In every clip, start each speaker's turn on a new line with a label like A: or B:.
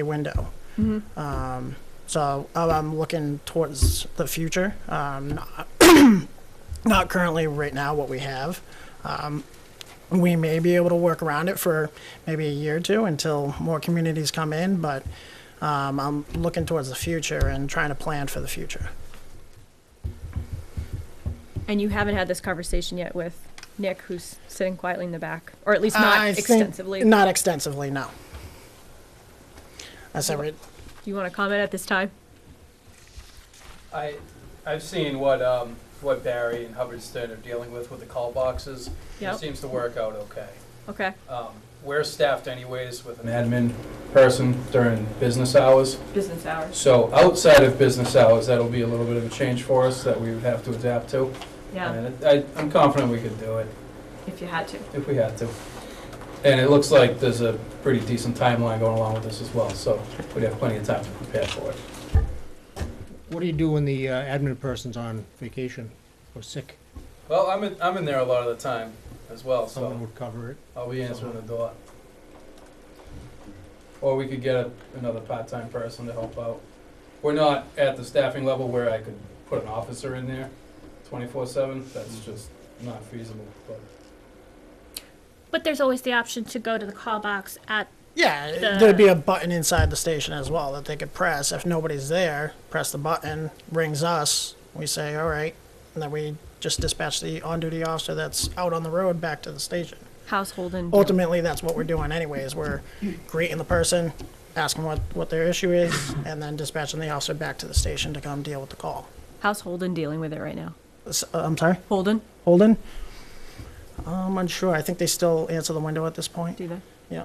A: a window. Um, so uh, I'm looking towards the future, um, not, not currently right now what we have. Um, we may be able to work around it for maybe a year or two until more communities come in, but um, I'm looking towards the future and trying to plan for the future.
B: And you haven't had this conversation yet with Nick, who's sitting quietly in the back, or at least
A: Uh, I
B: not
A: think-
B: extensively. Do
A: Not extensively, no. That's every,
B: you want to comment at this time?
C: I, I've seen what, um, what Barry and Hubbard Stern are dealing with with the call boxes.
B: Yep.
C: It seems to work out okay.
B: Okay,
C: Um, we're staffed anyways with an admin person during business hours.
B: business hours.
C: So outside of business hours, that'll be a little bit of a change for us that we would have to adapt to.
B: Yeah,
C: And I, I'm confident we could do it
B: if you had to.
C: if we had to. And it looks like there's a pretty decent timeline going along with this as well, so we'd have plenty of time to prepare for it.
D: What do you do when the uh, admin person's on vacation or sick?
C: Well, I'm in, I'm in there a lot of the time as well, Oh, so.
D: Someone would cover it.
C: I'll be answering the door. Or we could get a, another part-time person to help out. We're not at the staffing level where I could put an officer in there twenty-four seven, that's just not feasible, but.
E: But there's always the option to go to the call box at,
A: yeah,
E: The-
A: there'd be a button inside the station as well that they could press. If nobody's there, press the button, rings us, we say, all right, and then we just dispatch the on-duty officer that's out on the road back to the station.
B: Household and.
A: ultimately that's what we're doing anyways we're greeting the person asking what, what their issue is and then dispatching the officer back to the station to come deal with the call
B: Household and dealing with it right now.
A: S- uh, i'm sorry
B: Holden,
A: holden i'm unsure i think they still answer the window at this point
B: do they?
A: yeah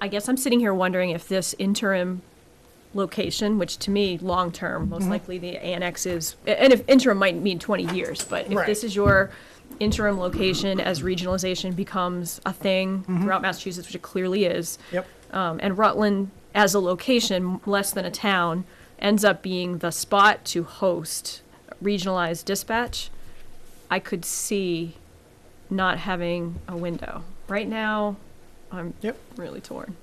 B: I guess I'm sitting here wondering if this interim location, which to me, long-term,
A: Mm-hmm.
B: most likely the annex is, and if interim might mean 20 years, but if
A: Right.
B: this is your interim location as regionalization becomes a thing
A: Mm-hmm.
B: throughout Massachusetts, which it clearly is,
A: yep
B: um, and Rutland as a location, less than a town, ends up being the spot to host regionalized dispatch, I could see not having a window. Right now, I'm
A: Yep.
B: really torn.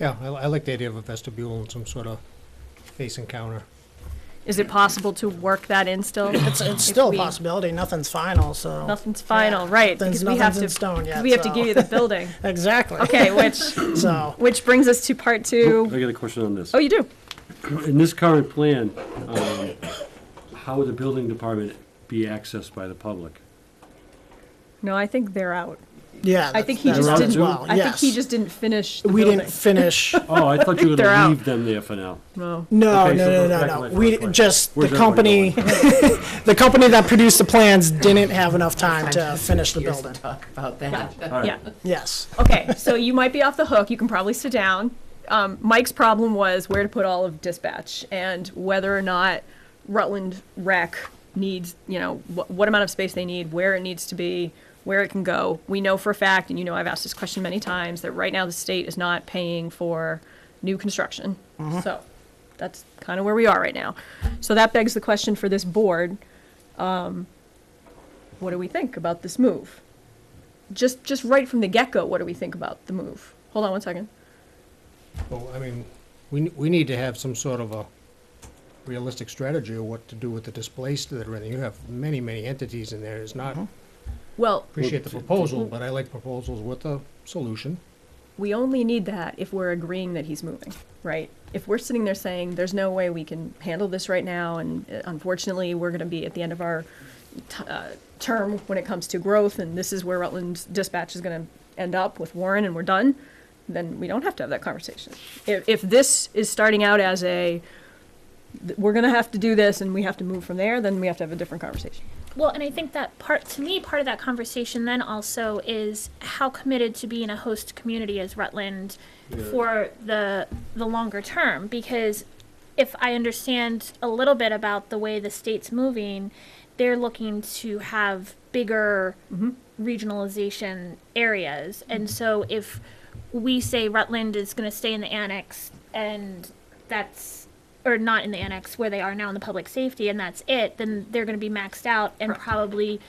D: Yeah, I, I like the idea of a vestibule and some sort of face encounter.
B: Is it possible to work that in still?
A: it's, it's still
B: we-
A: a possibility nothing's final so
B: Nothing's final, right?
A: Nothing's-
B: Because we have
A: nothing's in
B: to,
A: stone yet,
B: we have to
A: so.
B: give you the building.
A: exactly
B: Okay, which,
A: so
B: which brings us to part
F: I
B: two.
F: got a question on this.
B: Oh, you do?
F: In this current plan, um, how would the building department be accessed by the public?
B: No, I think they're out.
A: yeah
B: I think he
A: that's-
B: just
A: that's
F: didn't-
A: as well,
B: I think he
A: yes.
B: just didn't finish the
A: we
B: building.
A: didn't finish
F: Oh, I thought you were
B: They're out.
F: gonna leave them there for now.
B: No.
A: No,
F: Okay, so
A: no, no,
F: go back
A: no,
F: to
A: no.
F: my
A: We
F: first question.
A: just
F: Where's
A: the company,
F: everybody
A: the company that produced the plans didn't have enough time to finish the
G: years to
A: building.
G: Talk about that.
F: All right.
B: Yeah.
A: Yes,
B: Okay, so you might be off the hook. You can probably sit down. Um, Mike's problem was where to put all of dispatch and whether or not Rutland Rec needs, you know, wh- what amount of space they need, where it needs to be, where it can go. We know for a fact, and you know I've asked this question many times, that right now the state is not paying for new construction. So that's kind of where we are right now. So that begs the question for this board um, what do we think about this move? just just right from the get go, what do we think about the move? Hold on one second.
D: Well, I mean, we, n- we need to have some sort of a realistic strategy of what to do with the displaced that are in there. You have many, many entities in there. It's not,
B: Well,
D: appreciate the proposal, but I like proposals with a solution.
B: we only need that if we're agreeing that he's moving, right? If we're sitting there saying there's no way we can handle this right now, and uh, unfortunately we're going to be at the end of our t- uh, term when it comes to growth, and this is where Rutland's dispatch is going to end up with Warren, and we're done, then we don't have to have that conversation. If, if this is starting out as a th- we're going to have to do this and we have to move from there, then we have to have a different conversation.
E: well, and I think that part, to me, part of that conversation then also is how committed to being a host community is Rutland for the, the longer term, because if I understand a little bit about the way the state's moving, they're looking to have bigger regionalization areas. And so if we say Rutland is going to stay in the annex and that's, or not in the annex where they are now in the public safety and that's it, then they're going to be maxed out and probably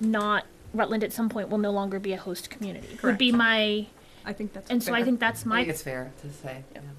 E: not, Rutland at some point will no longer be a host community. Would be my
G: I think that's
H: And so I
G: fair.
H: think that's
E: I
H: my
E: think it's fair to say.
G: Yeah.
E: yeah.